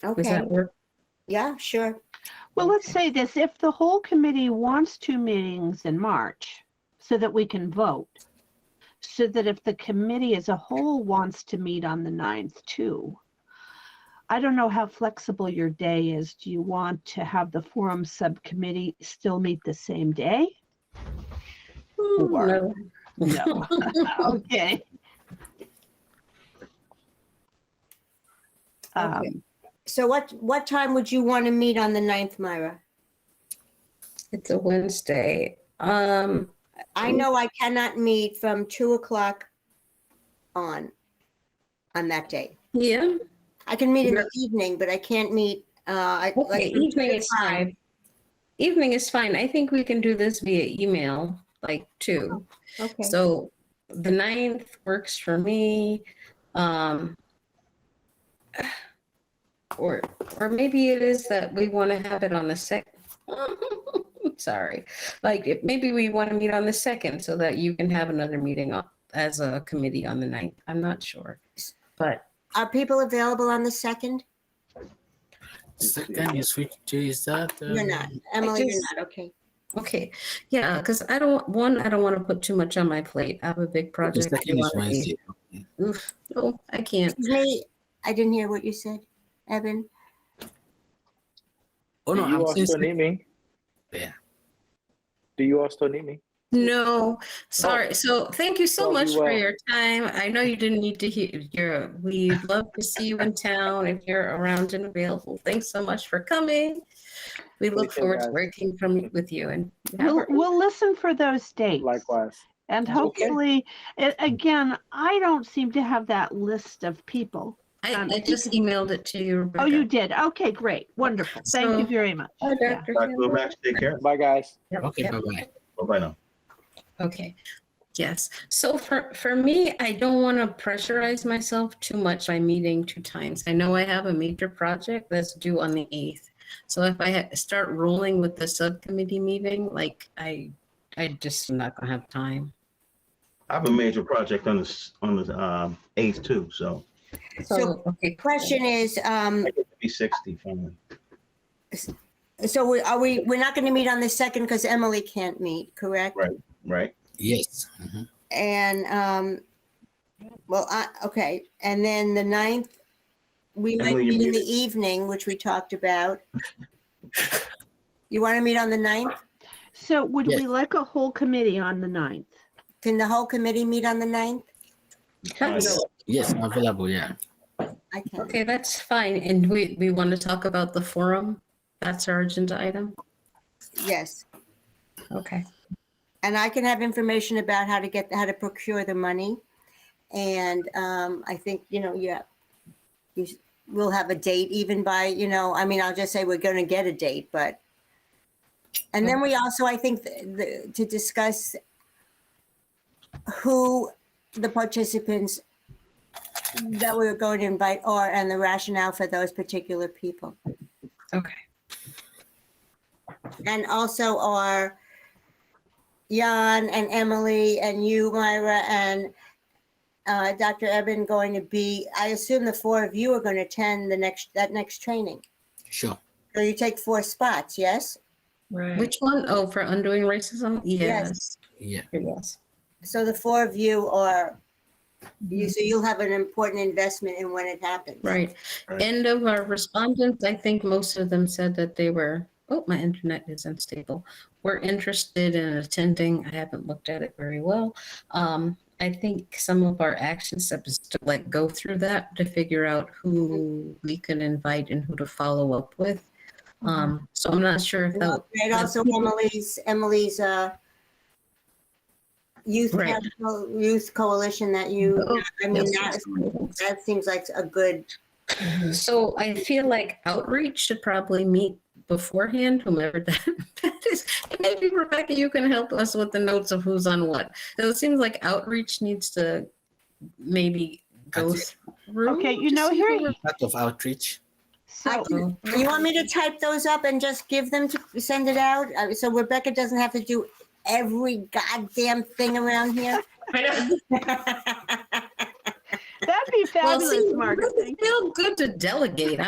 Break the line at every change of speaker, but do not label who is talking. Does
Okay,
that work?
yeah, sure.
Well, let's say this, if the whole committee wants two meetings in March so that we can vote, so that if the committee as a whole wants to meet on the 9th too, I don't know how flexible your day is. Do you want to have the forum subcommittee still meet the same day? Or-
No.
No. Okay. Um,
Okay. So what, what time would you want to meet on the 9th, Myra?
It's a Wednesday. Um,
I know I cannot meet from 2 o'clock on, on that day.
yeah,
I can meet in the evening, but I can't meet, uh, I- like,
okay, evening is fine. Evening is fine. I think we can do this via email, like two.
okay,
So the ninth works for me. Um, or, or maybe it is that we want to have it on the sec. Sorry, like it- maybe we want to meet on the second so that you can have another meeting on- as a committee on the ninth. I'm not sure. But
are people available on the 2nd?
Second is which day is that?
You're
Um,
not, Emily, you're
just-
not, okay.
Okay, yeah, because I don't, one, I don't want to put too much on my plate. I have a big
the
project. I
Second is
wanna be-
Wednesday.
Oof, No, I can't.
Excuse me, I didn't hear what you said, Evan.
Oh, no,
Do you
I'm
all
saying
still need me?
Yeah.
Do you all still need me?
No, sorry. So thank you so
Oh, Well,
much
you
for
will.
your time. I know you didn't need to hear, your. we'd love to see you in town if you're around and available. Thanks so much for coming. We look
too,
forward to
guys.
working from, with you and.
We'll, we'll listen for those dates.
Likewise.
And
Okay.
hopefully, a- again, I don't seem to have that list of people.
I,
um,
I just emailed it to you.
Oh, you did? Oh, Okay, great, wonderful. Thank you
So-
very much.
Hi,
Yeah.
Dr.
Dr.
Campbell.
Lomax, take care.
Bye, guys.
Yep,
Okay,
yep.
bye bye.
Bye-bye now.
Okay, yes. So for, for me, I don't want to pressurize myself too much by meeting two times. I know I have a major project that's due on the 8th. So if I ha- start rolling with the subcommittee meeting, like I, I just am not gonna have time.
I have a major project on the, s- on the, um, eighth too, so
So, okay.
Question is, um,
I get to be sixty finally.
so we- are we, we're not going to meet on the 2nd because Emily can't meet, correct?
Right?
Yes. mhm.
And, um, well, I, okay, and then the ninth, we might
Emily, you're
meet in the
muted.
evening, which we talked about. You want to meet on the ninth?
So would
Yes.
we like a whole committee on the 9th?
Can the whole committee meet on the ninth?
That's-
Yes, I'm available. Yeah.
I can.
Okay, that's fine. And we, we want to talk about the forum? That's our agenda item?
Yes,
Okay.
and I can have information about how to get, how to procure the money. And, um, I think, you know, yeah, you, s- we'll have a date even by, you know, I mean, I'll just say we're going to get a date, but. And then we also, I think, th- the, to discuss who the participants that we're going to invite are and the rationale for those particular people.
Okay.
And also are Jan and Emily and you, Myra, and uh, Dr. Eben going to be, I assume the four of you are going to attend the next, that next training.
Sure.
So you take four spots, yes?
Which one? Oh, for undoing racism? Yes.
Yes.
Yeah.
Yes.
So the four of you are, you, so you'll have an important investment in when it happens.
Right.
Right.
End of our respondents, I think most of them said that they were, oh, my internet is unstable. We're interested in attending. I haven't looked at it very well. Um, I think some of our action steps is to like go through that to figure out who we can invite and who to follow up with. Um, so I'm not sure if
And
that,
al- And also Emily's, Emily's, uh, youth,
Right.
council- youth coalition that you,
Oh,
I mean, that, that seems like a good
so I feel like outreach should probably meet beforehand, whomever that that is. And Maybe Rebecca, you can help us with the notes of who's on what. So it seems like outreach needs to maybe go
That's
through.
Okay, you
to
know,
see who
here-
we're-
Part of outreach.
So,
Oh,
You want me to type those up and just give them to, send it out? Uh, So Rebecca doesn't have to do every goddamn thing around here?
that'd be
well, see,
fabulous, Margaret.
it doesn't
Thank you.
Feel good to delegate.